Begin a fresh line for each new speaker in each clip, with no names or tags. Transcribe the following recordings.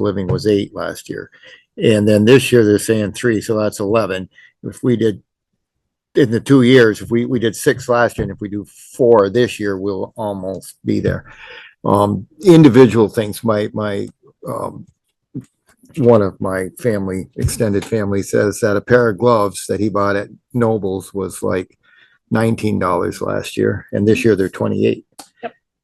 living was eight last year. And then this year they're saying three, so that's eleven. If we did in the two years, if we, we did six last year and if we do four this year, we'll almost be there. Um, individual things, my, my, um, one of my family, extended family says that a pair of gloves that he bought at Nobles was like nineteen dollars last year, and this year they're twenty-eight.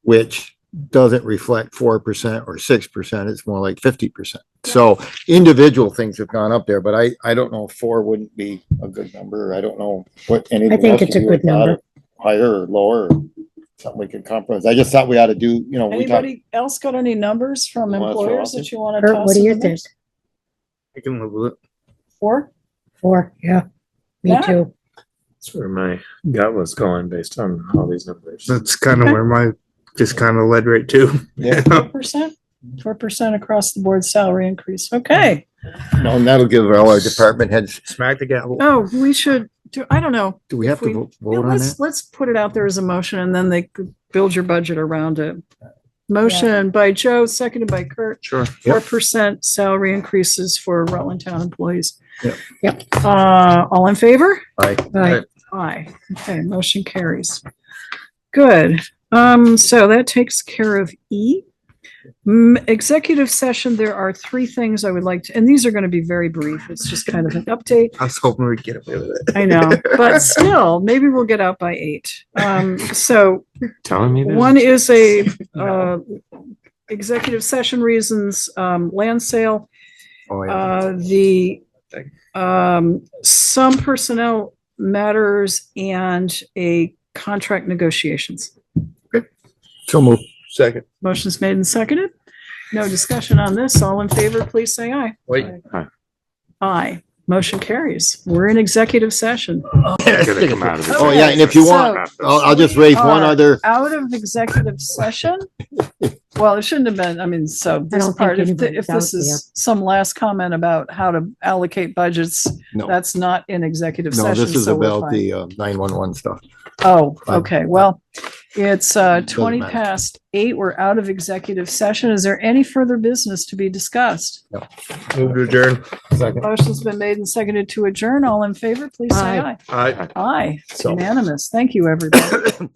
Which doesn't reflect four percent or six percent, it's more like fifty percent. So individual things have gone up there, but I, I don't know, if four wouldn't be a good number, I don't know what anything.
think
else
it's
you
a
hear
good
about
number.
it, Higher or lower, or something we could compromise, I just thought we ought to do, you know, we talked.
Anybody else got any numbers from
You wanna throw
employers
out
that you want to
Kurt,
toss
what do
in
you
the
think?
mix?
I can live with it.
Four?
Four, yeah, me
Yeah.
too.
That's where my gut was going based on all these numbers.
That's kind of
Okay.
where my just kind of led right to.
Yeah.
Four percent? Four percent across the board salary increase. Okay.
No, and that'll give all our department heads,
Smack the gavel.
Oh, we should do, I don't know.
do we have to
We-
vo-
Yeah,
vote on
Let's,
that?
let's put it out there as a motion and then they could build your budget around it. Motion by Joe, seconded by Kurt,
Sure.
four percent salary increases for Rutland Town employees.
Yep.
Yep.
Uh, all in favor?
Right,
Aye. Okay, motion carries. Good. Um, so that takes care of E. Mm, executive session, there are three things I would like to, and these are gonna be very brief. It's just kind of an update.
I was hoping we'd get away with it.
I know, but still, maybe we'll get out by eight. Um, so
Telling me this?
one is a, uh, executive session reasons, um, land sale.
Oh, yeah.
Uh, the, um, some personnel matters and a contract negotiations.
So move. Second.
Motion's made and seconded. No discussion on this. All in favor, please say aye.
Wait.
Aye.
Aye. Motion carries. We're in executive session.
Gotta come out of it.
Oh, yeah, and if you want, oh, I'll, I'll just raise one
Are-
other,
Out of executive session? Well, it shouldn't have been, I mean, so this
don't
part,
think
if, the-
anybody's
if this
out
is some last comment about how to allocate budgets,
no,
that's not in executive
no,
session.
this is
so we're
about
fine.
the uh, nine-one-one stuff.
Oh,
Fine.
okay. Well, it's uh
Doesn't
twenty
matter.
past eight. We're out of executive session. Is there any further business to be discussed?
Move to adjourn.
Second.
Motion's been made and seconded to adjourn. All in favor, please say aye.
Aye.
Aye, It's
So-
unanimous. Thank you, everybody.